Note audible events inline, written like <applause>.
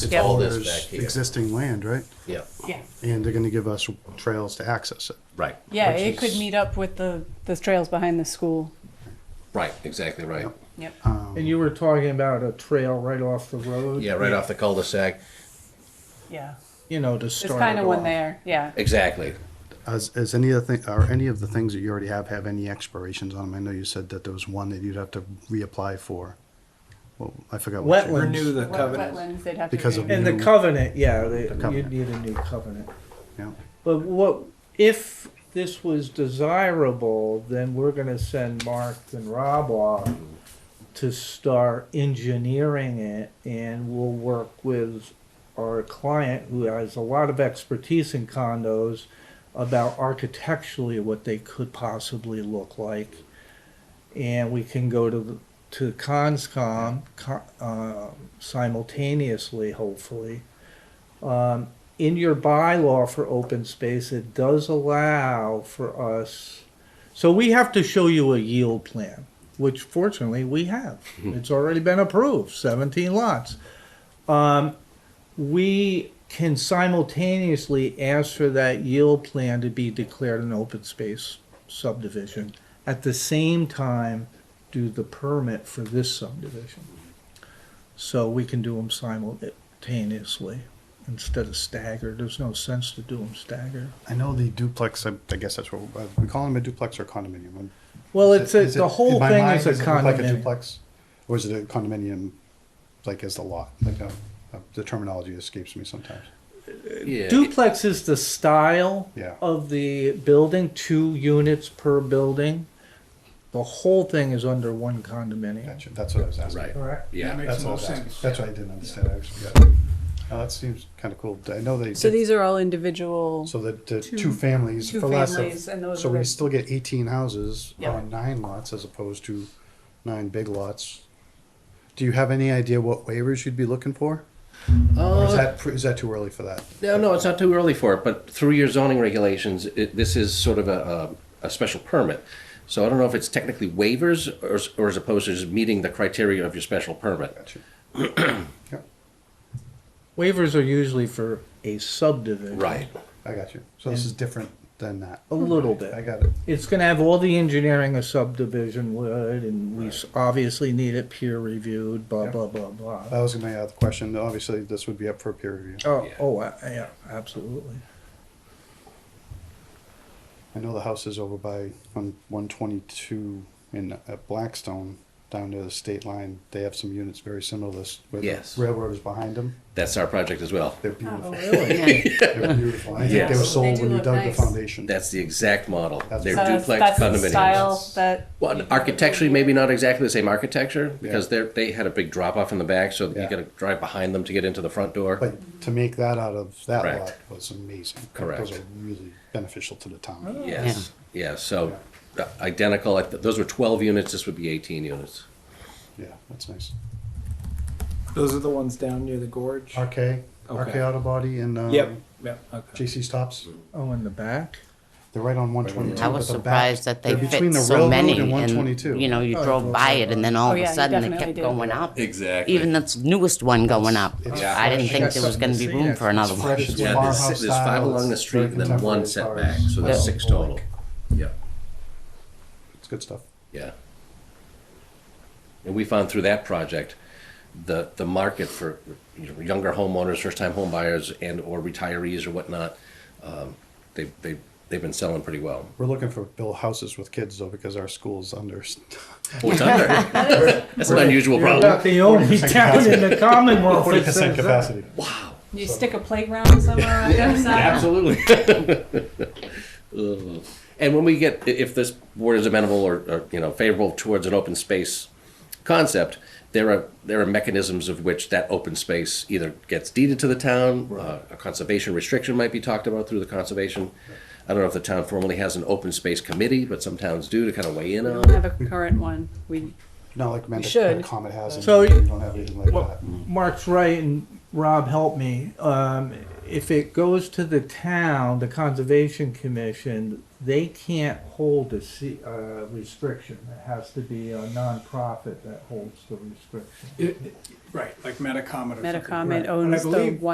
It's Yep. all this back There's here. existing land, right? Yeah, Yeah, And they're gonna give us trails to access it. right. yeah, Which it could is- meet up with the, the trails behind the school. Right, exactly right. Yep. And you were talking about a trail right off the road. Yeah, right off the cul-de-sac. Yeah. You know, to There's start. kind of it one off. there. Yeah. Exactly. As, as any of the thing, or any of the things that you already have, have any expirations on them? I know you said that there was one that you'd have to reapply for. Well, I forgot. what you- Wetland. Renew the Wet- covenant. Wetlands, they'd have to. Because of renew. And the New- covenant, yeah, they- covenant. you'd need a new covenant. Yeah, But what, if this was desirable, then we're gonna send Mark and Rob off to start engineering it, and we'll work with our client who has a lot of expertise in condos about architecturally what they could possibly look like. And we can go to, the- to Conscom, co- uh, simultaneously, hopefully. Um, in your bylaw for open space, it does allow for us, so we have to show you a yield plan, which fortunately we have. It's already been approved, seventeen lots. Um, we can simultaneously ask for that yield plan to be declared an open space subdivision. At the same time, do the permit for this subdivision. So we can do them simultaneously instead of staggered. There's no sense to do them staggered. I know the duplex, I I guess that's what, uh, we call them a duplex or condominium. I'm- Well, is it's a, it- is the it- whole in my thing mind, is a does it look like condominium. duplex, Or is it a condominium, like as the lot? Like, uh, uh, the terminology escapes me sometimes. Yeah. Duplex is the style Yeah. of the building, two units per building. The whole thing is under one condominium. Gotcha, that's what I was asking. Right. Correct. Yeah. That That's makes what I no was asking. sense. That's why I didn't understand. I was- yeah. Now, that seems kind of cool. I know they, So did- these are all individual. so that the two families two for less families, and of, those so are we the- still get eighteen houses Yeah. on nine lots as opposed to nine big lots. Do you have any idea what waivers you'd be looking for? Or is Uh, that, pre- is that too early for that? no, no, it's not too early for it, but through your zoning regulations, it, this is sort of a, a, a special permit. So I don't know if it's technically waivers or, s- or as opposed to just meeting the criteria of your special permit. Gotcha. Waivers are usually for a subdivision. Right. I got you. So this is different than that. A little I bit. got it. It's gonna have all the engineering a subdivision would, and we s- obviously need it peer reviewed, blah, Yeah. Uh, blah, blah, blah. That was my other question. Obviously, this would be up for peer review. Oh, Yeah. oh, I- yeah, absolutely. I know the house is over by on one twenty two in at Blackstone down near the state line. They have some units very similar to this. Where Yes. the railroad is behind them. That's our project as well. <laughs> They're beautiful. <laughs> Yeah. They're beautiful. I think they were Yes. sold Oh. They when do you look dug nice. the foundation. That's the exact model. That's- They're So that's- duplex That's the condominiums. style that. Well, and architecturally, maybe not exactly the same architecture because Yeah. they're, they had a big drop off in the back, so Yeah. you got to drive behind them to get into the front door. but to make that out of that Correct. lot was amazing. Correct. Those are really beneficial to the town. Oh. Yes, yeah, so uh, identical, like, those were twelve units, this would be eighteen units. Yeah, that's nice. Those are the ones down near the gorge. RK, RK Auto Body and um, Yep. Yep. Okay. JC Stops. Mm-hmm. Oh, in the back? They're right on 122. I was at the back. surprised that they They're between the fit so railroad many, and and, 122. you know, you Oh, drove by it, and then Oh, all of yeah, a you sudden it definitely kept did. going up. Exactly. Even this newest one going up. it's I didn't fresh. think there was gonna be Yeah. room for another It's one. fresh. Yeah, farmhouse there's, there's five style, along the it's street very and then one uh, contemporary as setback, far as- so there's Yeah. six total. Yeah, It's good stuff. yeah. And we found through that project, the, the market for you know, younger homeowners, first-time homebuyers and/or retirees or whatnot, um, they, they, they've been selling pretty well. We're looking for build houses with kids though, because our school's under. Well, it's under, that's an unusual You're problem. about the only 40% town in the Commonwealth Forty that says percent that. capacity. You stick a playground somewhere on the other side. Absolutely. Ugh. And when we get, i- if this board is amenable or, or, you know, favorable towards an open space concept, there are, there are mechanisms of which that open space either gets deeded to the town, uh, a conservation restriction might be talked about through the conservation. I don't know if the town formally has an open space committee, but some towns do to kind of weigh in We on don't it. have a current one. We, Not like Mendocino should. Comet has, and So you you- don't have anything like Well, that. Mark's right, and Rob, help me. Um, if it goes to the town, the conservation commission, they can't hold a se- uh, restriction. It has to be a nonprofit that holds the restriction. It- it- Right, like Metacomet or something. Metacomet right. And I owns the believe-